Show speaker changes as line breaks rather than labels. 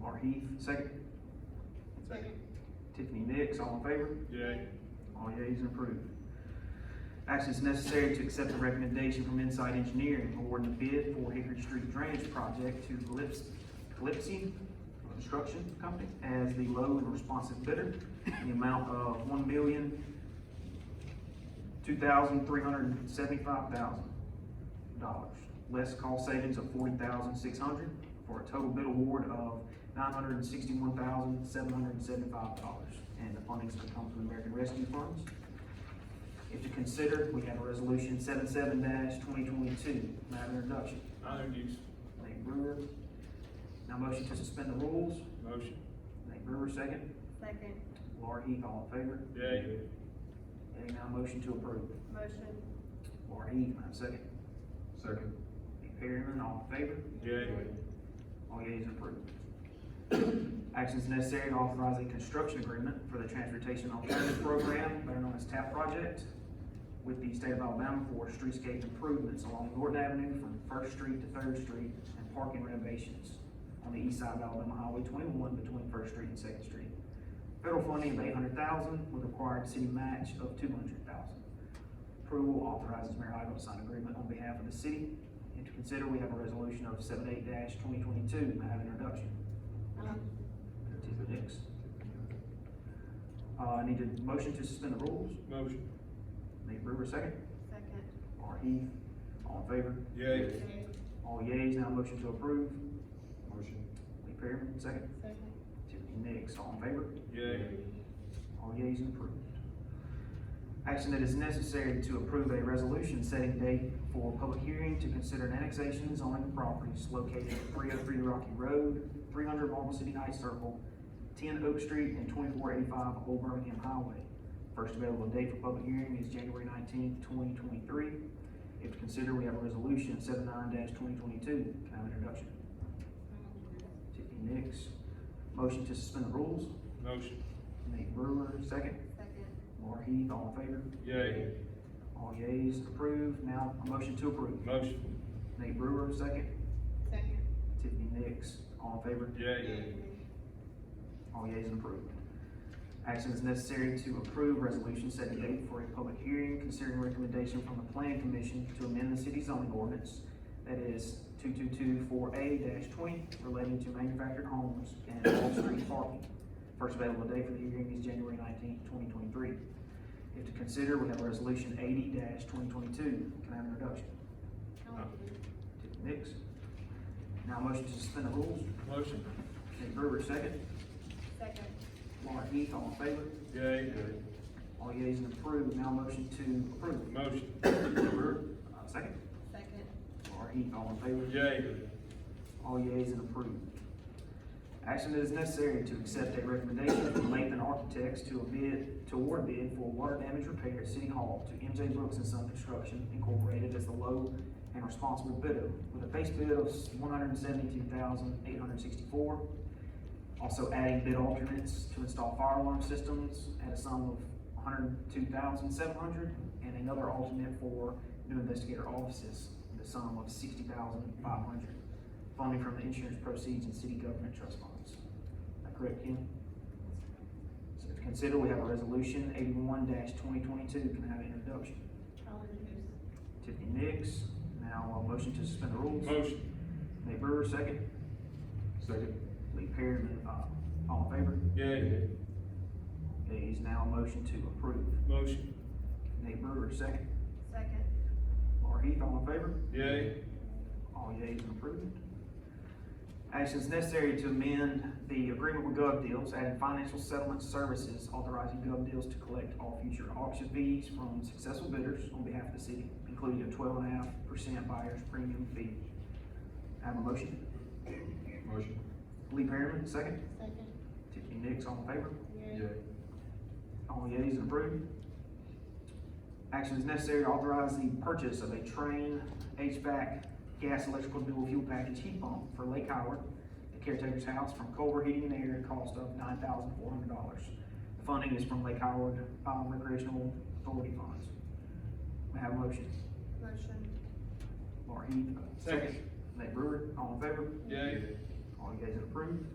Mark Heath, second.
Second.
Tiffany Nix, all in favor?
Yay.
All yeas approved. Actions necessary to accept the recommendation from Inside Engineering awarding the bid for Hickory Street Drainage Project to Calyps- Calypsy Construction Company as the low and responsive bidder in the amount of one million, two thousand, three hundred and seventy-five thousand dollars. Less cost savings of forty thousand, six hundred, for a total bid award of nine hundred and sixty-one thousand, seven hundred and seventy-five dollars. And the funding's gonna come from American Rescue Funds. If you consider, we have a resolution seven-seven twenty twenty-two, matter of introduction.
I introduce.
Nate Brewer. Now motion to suspend the rules.
Motion.
Nate Brewer, second.
Second,
Laura Heath, all in favor?
Yay.
And now motion to approve.
motion,
Laura Heath, my second.
Second.
Nate Perryman, all in favor?
Yay.
All yeas approved. Actions necessary to authorize a construction agreement for the Transportation Alternative Program, better known as TAP Project, with the state of Alabama for streetscape improvements along Norton Avenue from First Street to Third Street and parking renovations on the east side of Alabama Highway twenty-one between First Street and Second Street. Federal funding of eight hundred thousand with required city match of two hundred thousand. Approval authorizes Mayor Idol to sign agreement on behalf of the city. And to consider, we have a resolution of seven eight twenty twenty-two, may I have an introduction?
um,
Tiffany Nix. Uh, I need a motion to suspend the rules.
Motion.
Nate Brewer, second.
second.
Laura Heath, all in favor?
Yay.
All yeas, now motion to approve.
Motion.
Lee Perryman, second.
Second.
Tiffany Nix, all in favor?
Yay.
All yeas approved. Action that is necessary to approve a resolution setting date for public hearing to consider an annexation zoning of properties located at three oh three Rocky Road, three hundred Marble City Heights Circle, ten Oak Street, and twenty-four eighty-five Old Birmingham Highway. First available date for public hearing is January nineteenth, twenty twenty-three. If to consider, we have a resolution seven twenty twenty-two. Can I have an introduction? Tiffany Nix, motion to suspend the rules.
Motion.
Nate Brewer, second.
Second,
Laura Heath, all in favor?
Yay.
All yeas approved. Now, a motion to approve.
Motion.
Nate Brewer, second.
second.
Tiffany Nix, all in favor?
Yay.
All yeas approved. Action is necessary to approve resolution setting date for a public hearing considering recommendation from the planning commission to amend the city zoning ordinance. That is two-two-two-four-A twenty relating to manufactured homes and off-street parking. First available date for the hearing is January nineteenth, twenty twenty-three. If to consider, we have resolution eighty twenty twenty-two. Can I have an introduction?
I'll introduce.
Tiffany Nix. Now motion to suspend the rules.
Motion.
Nate Brewer, second.
Second,
Laura Heath, all in favor?
Yay.
All yeas and approved, now motion to approve.
Motion.
Brewer, uh, Second,
second,
Laura Heath, all in favor?
Yay.
All yeas and approved. Action that is necessary to accept a recommendation from Lathan Architects to a bid, to award bid for water damage repair at City Hall to MJ Brooks and Son Construction Incorporated as the low and responsible bidder with a base bid of one hundred and seventy-two thousand, eight hundred and sixty-four. Also adding bid alternates to install fire alarm systems at a sum of one hundred two thousand seven hundred and another alternate for new investigator offices, the sum of sixty thousand five hundred. Funding from the insurance proceeds and city government trust funds. Am I correct, Ken? So to consider, we have a resolution eighty-one twenty twenty-two. Can I have an introduction?
I'll introduce.
Tiffany Nix, now a motion to suspend the rules.
Motion.
Nate Brewer, second.
Second.
Lee Perryman, uh, all in favor?
Yay.
It is now a motion to approve.
Motion.
Nate Brewer, second.
Second,
Laura Heath, all in favor?
Yay.
All yeas Oh, approved. Actions necessary to amend the agreement with GovDeals, adding financial settlement services, authorizing GovDeals to collect all future auction fees from successful bidders on behalf of the city, including a twelve and a half percent buyer's premium fee. I Have a motion.
Motion.
Lee Perryman, second.
second.
Tiffany Nix, all in favor?
Yay.
Yay.
All yeas approved. Action is necessary to authorize the purchase of a train HVAC gas electrical dual fuel package heat pump for Lake Howard, the caretaker's house from Culver Heating and Air, at a cost of nine thousand four hundred dollars. The Funding is from Lake Howard um, Recreational Authority Funds. May I have a motion?
Motion,
Laura Heath.
Second.
Nate Brewer, all in favor?
Yay.
All yeas approved.